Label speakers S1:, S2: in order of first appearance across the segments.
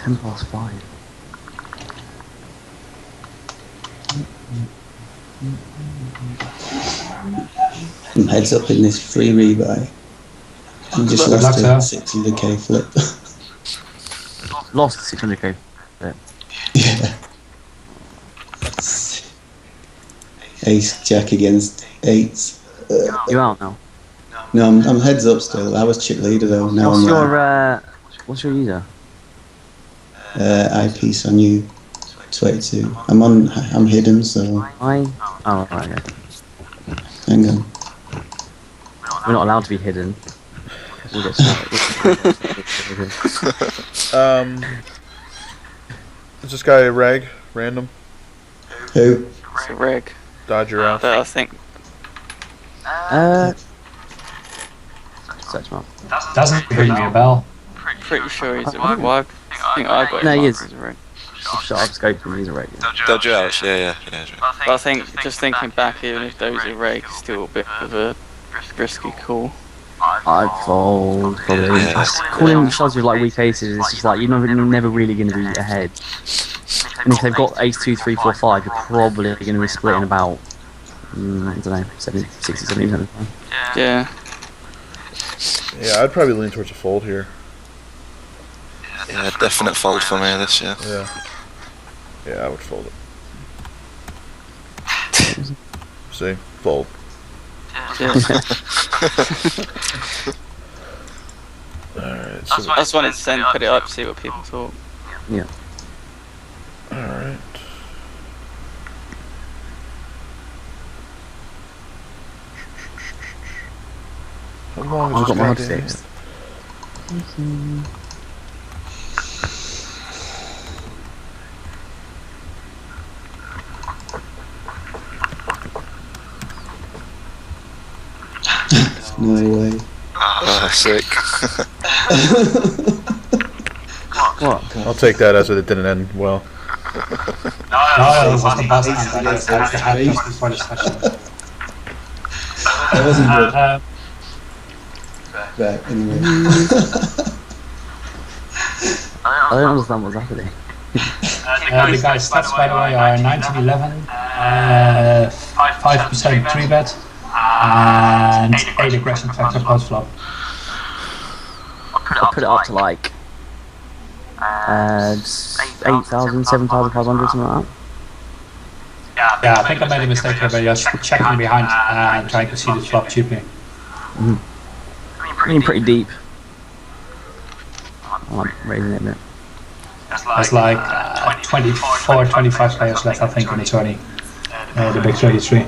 S1: Ten past five.
S2: I'm heads up in this free rebuy. I just
S3: Good luck,
S2: lost a
S3: sir.
S2: 600k flip.
S1: Lost 600k.
S2: yeah. Ace Jack against eights. Uh,
S1: You're out now.
S2: No, I'm, I'm heads up still. I was chip leader though. Now
S1: What's
S2: I'm
S1: your uh, what's your user?
S2: uh, eyepiece on you. 22. I'm on. I'm hidden, so
S1: I. Oh right, okay.
S2: hang on.
S1: We're not allowed to be hidden. We'll get started.
S4: Um, is this guy a rag? Random?
S2: Who?
S5: It's a rig.
S4: Dodger out.
S5: But I think
S1: uh, search him up.
S3: Doesn't ring me a bell.
S5: pretty sure he's a
S1: I- I
S5: rig. Well, I think I got him
S1: No, he
S5: marked
S1: is.
S5: as a rig.
S1: Shut up, scope from user rate. Yeah.
S6: Dodge out. Yeah, yeah, yeah. yeah.
S5: But I think just thinking back, even if those are rig, it's still a bit of a risky call.
S1: I fold probably.
S6: Yeah.
S1: Just Calling shots with like weak aces, it's just like you're never, you're never really going to be ahead. And if they've got ace two, three, four, five, you're probably going to be splitting about. Mm, I don't know, 70, 60, 70, percent.
S5: Yeah,
S4: Yeah, I'd probably lean towards a fold here.
S6: Yeah, definite fold for me this year.
S4: Yeah. Yeah, I would fold it. See? Fold.
S5: yeah.
S4: Alright.
S5: I
S4: So,
S5: just wanted to send, put it up, see what people thought.
S4: alright. How long
S1: I've
S4: is
S1: got my hard
S4: this goddamn-
S1: six.
S2: No way.
S6: Oh, sick.
S1: What?
S4: I'll take that as it didn't end well.
S3: No, it wasn't best hand. That was that was the happiest before the session.
S2: That wasn't good.
S3: Uh,
S2: Right, anyway.
S1: I don't understand what's happening.
S3: uh, the guys' stats, by the way, are 1911, uh, 5% 3 bet, and 8 aggression factor post flop.
S1: I put it up to like uh, 8,000, 7,500, something like that.
S3: Yeah, I think I made a mistake here, but just checking behind uh, and trying to see the flop cheaply.
S1: I mean, pretty deep. I'm like raising it a bit.
S3: There's like uh, 24, 25 players left, I think, in the tourney. Uh, the big 33.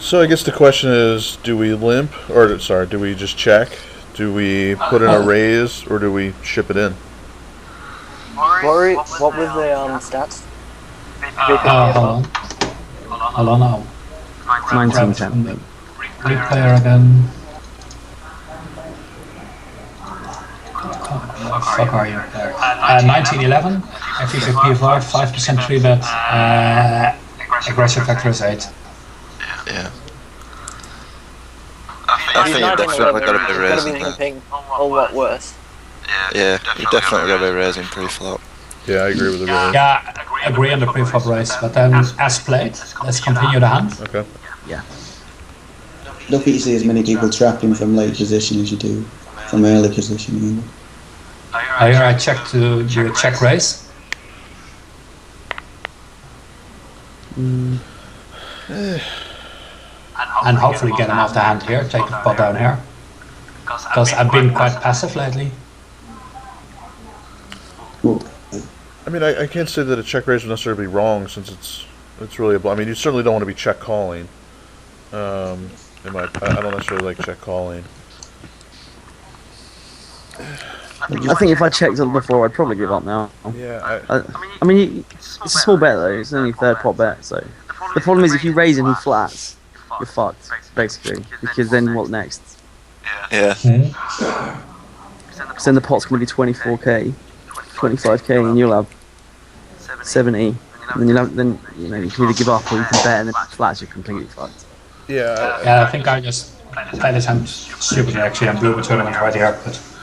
S4: So I guess the question is, do we limp, or sorry, do we just check? Do we put in a raise, or do we ship it in?
S7: Rory, what were the um, stats?
S3: Uh, hold on. Hold on now.
S1: It's 19
S3: Grab from
S1: cent.
S3: the Big player again. Oh, fuck are you there? Uh, 1911, FVP of art, 5% 3 bet, uh, aggressive factor is 8.
S6: Yeah. I think
S7: He's
S6: you
S7: not gonna win,
S6: definitely got to be
S7: he's
S6: raising
S7: gonna be
S6: that.
S7: limping, or what worse.
S6: Yeah, you definitely got to be raising pre-flop.
S4: Yeah, I agree with the raise.
S3: Yeah, agree on the pre-flop race, but then as played, let's continue the hand.
S4: Okay.
S2: Don't think you see as many people trapping from late position as you do from early position. you know.
S3: Uh, here I check to do a check raise. And hopefully get him off the hand here, take the pot down here. Because I've been quite passive lately.
S4: I mean, I, I can't say that a check raise would necessarily be wrong, since it's it's really a. bl- I mean, you certainly don't want to be check calling. Um, in my, I I don't necessarily like check calling.
S1: I think if I checked it before, I'd probably give up now.
S4: Yeah, I,
S1: I mean, you- it's a small bet though. It's only third pot bet, so the problem is if you raise and he flats, you're fucked basically. Because then what next?
S6: Yeah,
S1: Because then the pot's gonna be 24k, 25k, and you'll have 70. And then you'll have, then you know you can either give up or you can bet, and then flats you're completely fucked.
S4: yeah. I,
S3: Yeah, I think I just played this hand stupidly actually and blew the tournament right here, but